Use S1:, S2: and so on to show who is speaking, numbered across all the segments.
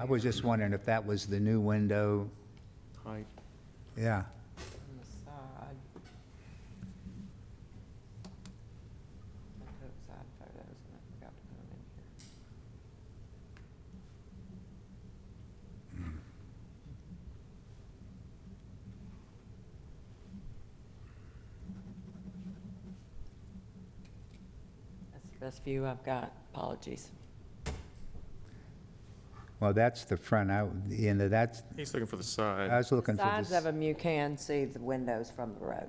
S1: I was just wondering if that was the new window,
S2: height.
S1: yeah.
S3: on the side. I put up side photos and I forgot to put them in here. That's the best view I've got, apologies.
S1: Well, that's the front, I, you know, that's,
S2: He's looking for the
S1: I
S2: side.
S1: was looking for
S3: Sides of
S1: the s-
S3: them, you can see the windows from the road.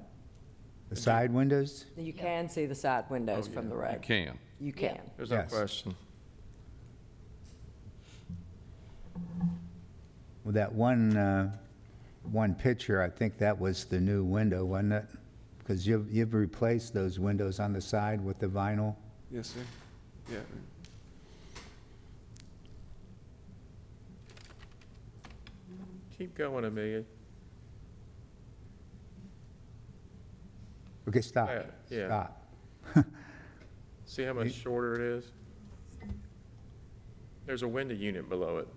S1: the side windows?
S3: You can see the side windows
S2: Oh,
S3: from
S2: yeah,
S3: the
S2: You
S3: road.
S2: can.
S3: You
S4: Yeah.
S3: can.
S2: There's no
S1: Yes.
S2: question.
S1: Well, that one, uh, one picture, I think that was the new window, wasn't it? Because you've, you've replaced those windows on the side with the vinyl.
S2: Yes, sir. Yeah. Keep going, Amelia.
S1: Okay, stop,
S2: Yeah, yeah.
S1: stop.
S2: See how much shorter it is? There's a window unit below it.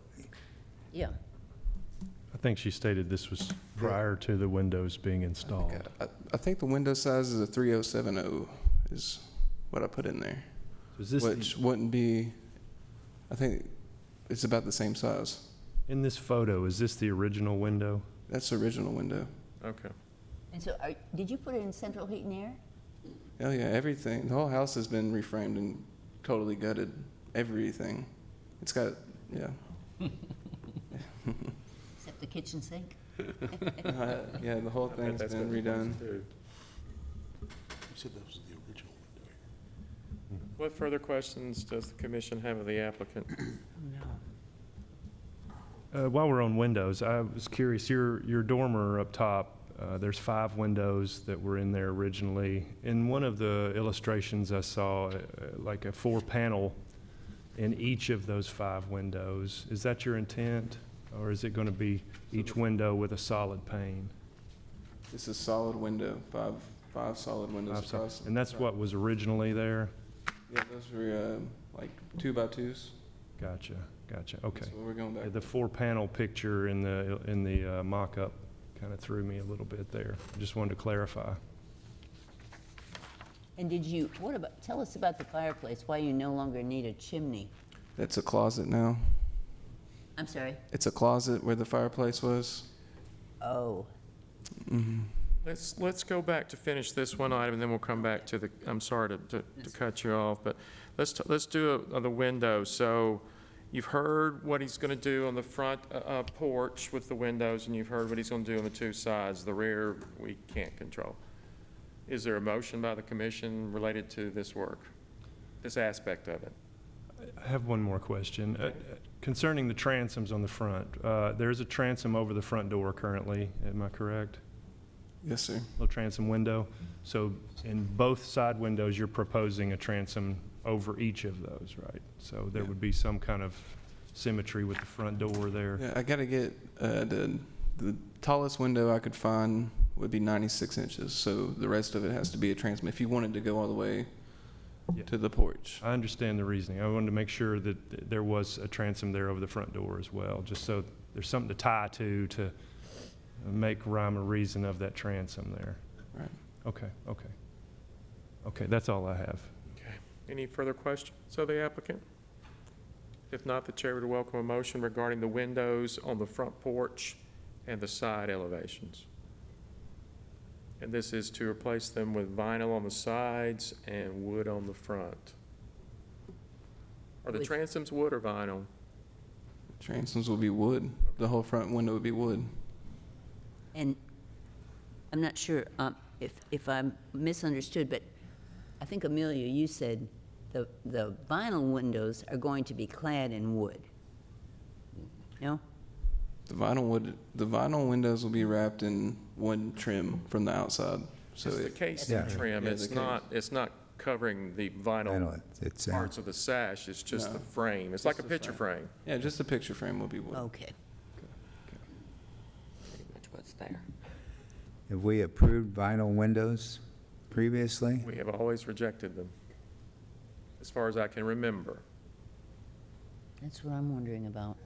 S4: Yeah,
S5: I think she stated this was prior to the windows being installed.
S6: I, I think the window size is a 3070 is what I put in there,
S5: Is this,
S6: which
S5: the-
S6: wouldn't be. I think it's about the same size.
S5: in this photo, is this the original window?
S6: That's the original window.
S2: Okay.
S4: and so, are- did you put it in central heat and air?
S6: Oh yeah, everything. The whole house has been reframed and totally gutted. Everything. It's got yeah,
S4: Except the kitchen sink?
S6: Uh, yeah. The whole
S2: I bet
S6: thing's
S2: that's
S6: been
S2: what it
S6: redone.
S2: wants to do.
S7: You said that was the original window.
S2: What further questions does the commission have of the applicant?
S5: Uh, While we're on windows, I was curious, your, your dormer up top, uh, there's five windows that were in there originally. In one of the illustrations I saw, uh, like a four-panel in each of those five windows. Is that your intent? Or is it going to be each window with a solid pane?
S6: This is solid window. Five five solid windows
S5: Five sol-
S6: across.
S5: And that's what was originally there?
S6: Yeah, those were uh, like two by twos.
S5: Gotcha, gotcha, okay.
S6: That's what we're going back.
S5: Yeah, The four-panel picture in the, in the uh, mock-up kind of threw me a little bit there. Just wanted to clarify.
S4: And did you, what about, tell us about the fireplace, why you no longer need a chimney?
S6: That's a closet now.
S4: I'm sorry?
S6: It's a closet where the fireplace was.
S4: Oh,
S2: Let's, let's go back to finish this one item, and then we'll come back to the, I'm sorry to, to to cut you off, but let's, t- let's do uh, the window. So you've heard what he's going to do on the front uh, uh, porch with the windows, and you've heard what he's going to do on the two sides. The rear, we can't control. Is there a motion by the commission related to this work, this aspect of it?
S5: I have one more question. Uh, Concerning the transoms on the front, uh, there is a transom over the front door currently, am I correct?
S6: Yes, sir.
S5: Little transom window. So in both side windows, you're proposing a transom over each of those, right? So there
S6: Yeah.
S5: would be some kind of symmetry with the front door there.
S6: Yeah, I gotta get uh, the the tallest window I could find would be 96 inches. So the rest of it has to be a transom. If you wanted to go all the way
S5: Yeah.
S6: to the porch,
S5: I understand the reasoning. I wanted to make sure that th- there was a transom there over the front door as well, just so there's something to tie to, to make rhyme or reason of that transom there.
S6: right?
S5: Okay, okay. Okay, that's all I have.
S2: Any further questions of the applicant? If not, the chair would welcome a motion regarding the windows on the front porch and the side elevations. And this is to replace them with vinyl on the sides and wood on the front. Are the
S4: With-
S2: transoms wood or vinyl?
S6: Transoms will be wood. The whole front window would be wood.
S4: and I'm not sure um, if, if I'm misunderstood, but I think Amelia, you said the, the vinyl windows are going to be clad in wood. No?
S6: The vinyl wood. The vinyl windows will be wrapped in wood trim from the outside. So
S2: It's the
S6: it,
S2: casing
S1: Yeah.
S2: trim,
S6: Yeah,
S2: it's
S6: the
S2: not, it's not covering the
S1: I know,
S2: vinyl
S1: it- it's, uh,
S2: parts of the sash, it's just the
S6: No.
S2: frame, it's
S6: Just
S2: like a
S6: the
S2: picture frame.
S6: yeah, just the picture frame will be wood.
S4: Okay.
S3: Pretty much what's there.
S1: have we approved vinyl windows previously?
S2: We have always rejected them, as far as I can remember.
S4: That's what I'm wondering about.